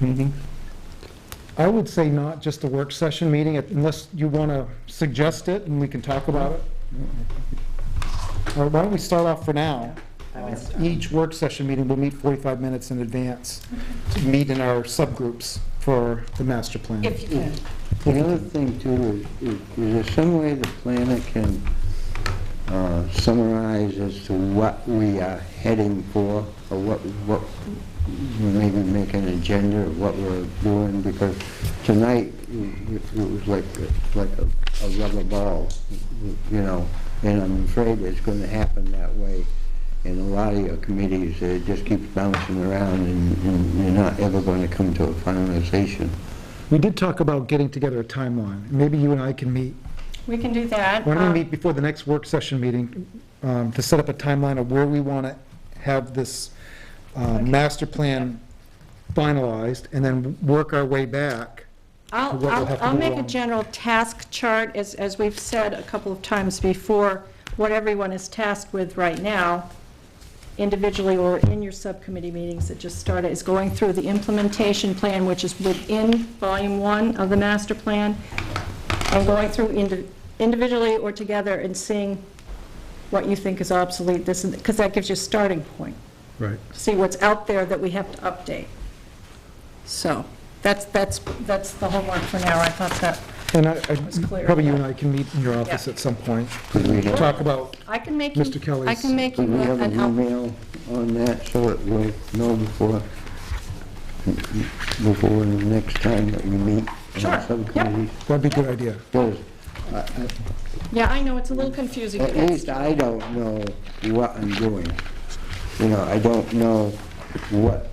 meeting? I would say not just a work session meeting unless you want to suggest it and we can talk about it. Or why don't we start off for now? Each work session meeting will meet 45 minutes in advance to meet in our subgroups for the master plan. If you can. The other thing too, is- is is there some way the planner can uh, summarize as to what we are heading for, or what, what, maybe make an agenda of what we're doing? Because tonight, it it was like, a- like a a rubber ball, you know, and I'm afraid it's going to happen that way in a lot of your committees. It just keeps bouncing around, and- and you're not ever going to come to a finalization. We did talk about getting together a timeline. Maybe you and I can meet. We can do that. Why don't Um, we meet before the next work session meeting um, to set up a timeline of where we want to have this uh, master plan finalized and then work our way back I'll, what we'll have I'll to I'll do make a on- general task chart, as, as we've said a couple of times before, what everyone is tasked with right now, individually or in your subcommittee meetings that just started, is going through the implementation plan, which is within volume one of the master plan, and going through indi- individually or together and seeing what you think is obsolete, this, because that gives you a starting point. Right. see what's out there that we have to update. So, that's, that's, that's the homework for now, I thought that, And I, was I- clear. probably you and I can meet in your office Yeah. at some point, Could we have- talk about, I can make you. Mr. Kelly's- I can make you Could we Mm-hmm. have an an out, email on that so that we'll know before, before the next time that we meet? in our Sure, yeah. subcommittees? that'd be a good idea. Because yeah, I know, it's a little confusing to at get least started. I don't know what I'm doing. You know, I don't know what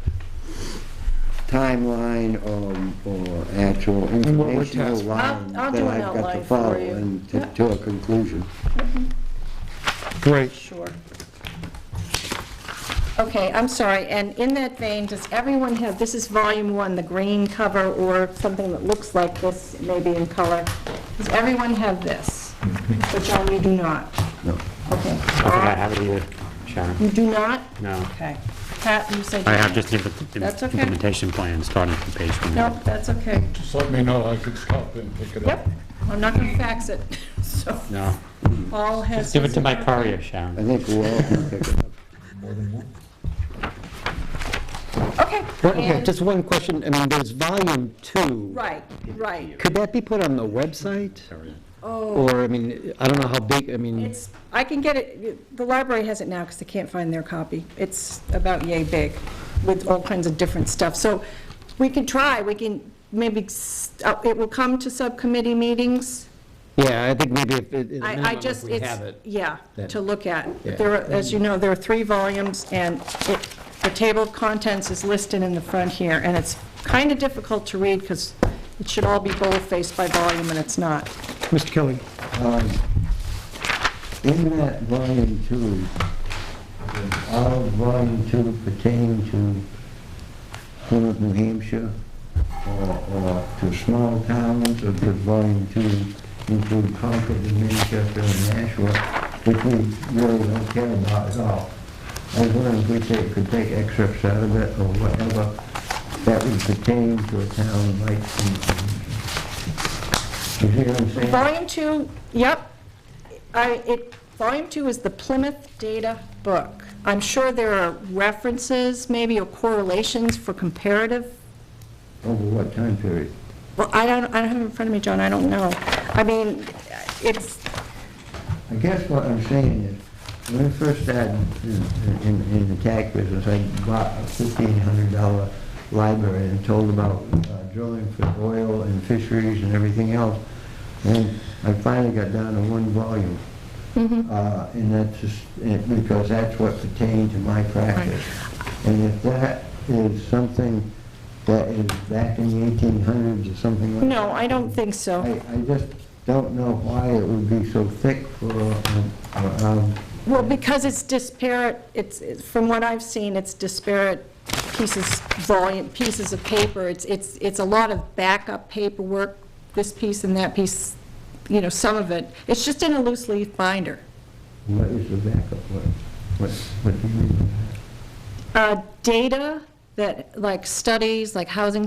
timeline or, or actual And what we're informational tasked with. line I'll- I'll that do an I've got outline to for follow you. and to- Yeah. to a conclusion. Great. Sure. Okay, I'm sorry, and in that vein, does everyone have, this is volume one, the green cover or something that looks like this, maybe in color. Does everyone have this? But John, you do not. No. Okay. I think I have it here, Sharon. You do not? No. Okay. Pat, you said. you I have had- just the implement- That's okay. implementation plan starting from page one. Nope, that's okay. Just let me know, I can stop and pick it up. Yep, I'm not going to fax it, so No. Paul has. Give it to my his- courier, I Sharon. think we all can pick it up. Okay. Well, Okay, and- just one question, I mean, there's volume two. Right, right. Could that be put on the website? Oh, Or, I mean, I don't know how big, I mean, it's, I can get it, the library has it now because they can't find their copy. It's about yay big with all kinds of different stuff. So we can try, we can maybe, s- uh, it will come to subcommittee meetings. yeah, I think maybe if, it- at a I, I minimum, if just, we it's, have it. yeah, then- to look at. Yeah. There, are- as you know, there are three volumes, and it, the table of contents is listed in the front here, and it's kind of difficult to read, because it should all be bold-faced by volume, and it's not. Mr. Kelly, Um, In that volume two, is all of volume two pertaining to Plymouth, New Hampshire, or or to small towns, or does volume two include Concord and Manchester and Nashua, which we really don't care about at all? I was wondering if we take- could take excerpts out of it, or whatever, that would pertain to a town like, you see what I'm saying? Volume two, yep, I, it, volume two is the Plymouth Data Book. I'm sure there are references, maybe, or correlations for comparative Over what time period? Well, I don't, I don't have it in front of me, John, I don't know. I mean, it's, I guess what I'm saying is, when I first started in- in, in the tax business, I bought a fifteen hundred dollar library and told about uh, drilling for oil and fisheries and everything else. And I finally got down to one volume. Mm-hmm. Uh, And that's just, and- because that's what pertained to my practice. And if that is something that is back in the eighteen hundreds or something like that. no, I don't think so. I, I just don't know why it would be so thick for, um, um, Well, because it's disparate, it's, it's- from what I've seen, it's disparate pieces, volume, pieces of paper. It's, it's, it's a lot of backup paperwork, this piece and that piece, you know, some of it. It's just in a loose leaf binder. what is the backup, what, what, what do you mean by that? Uh, Data that, like studies, like housing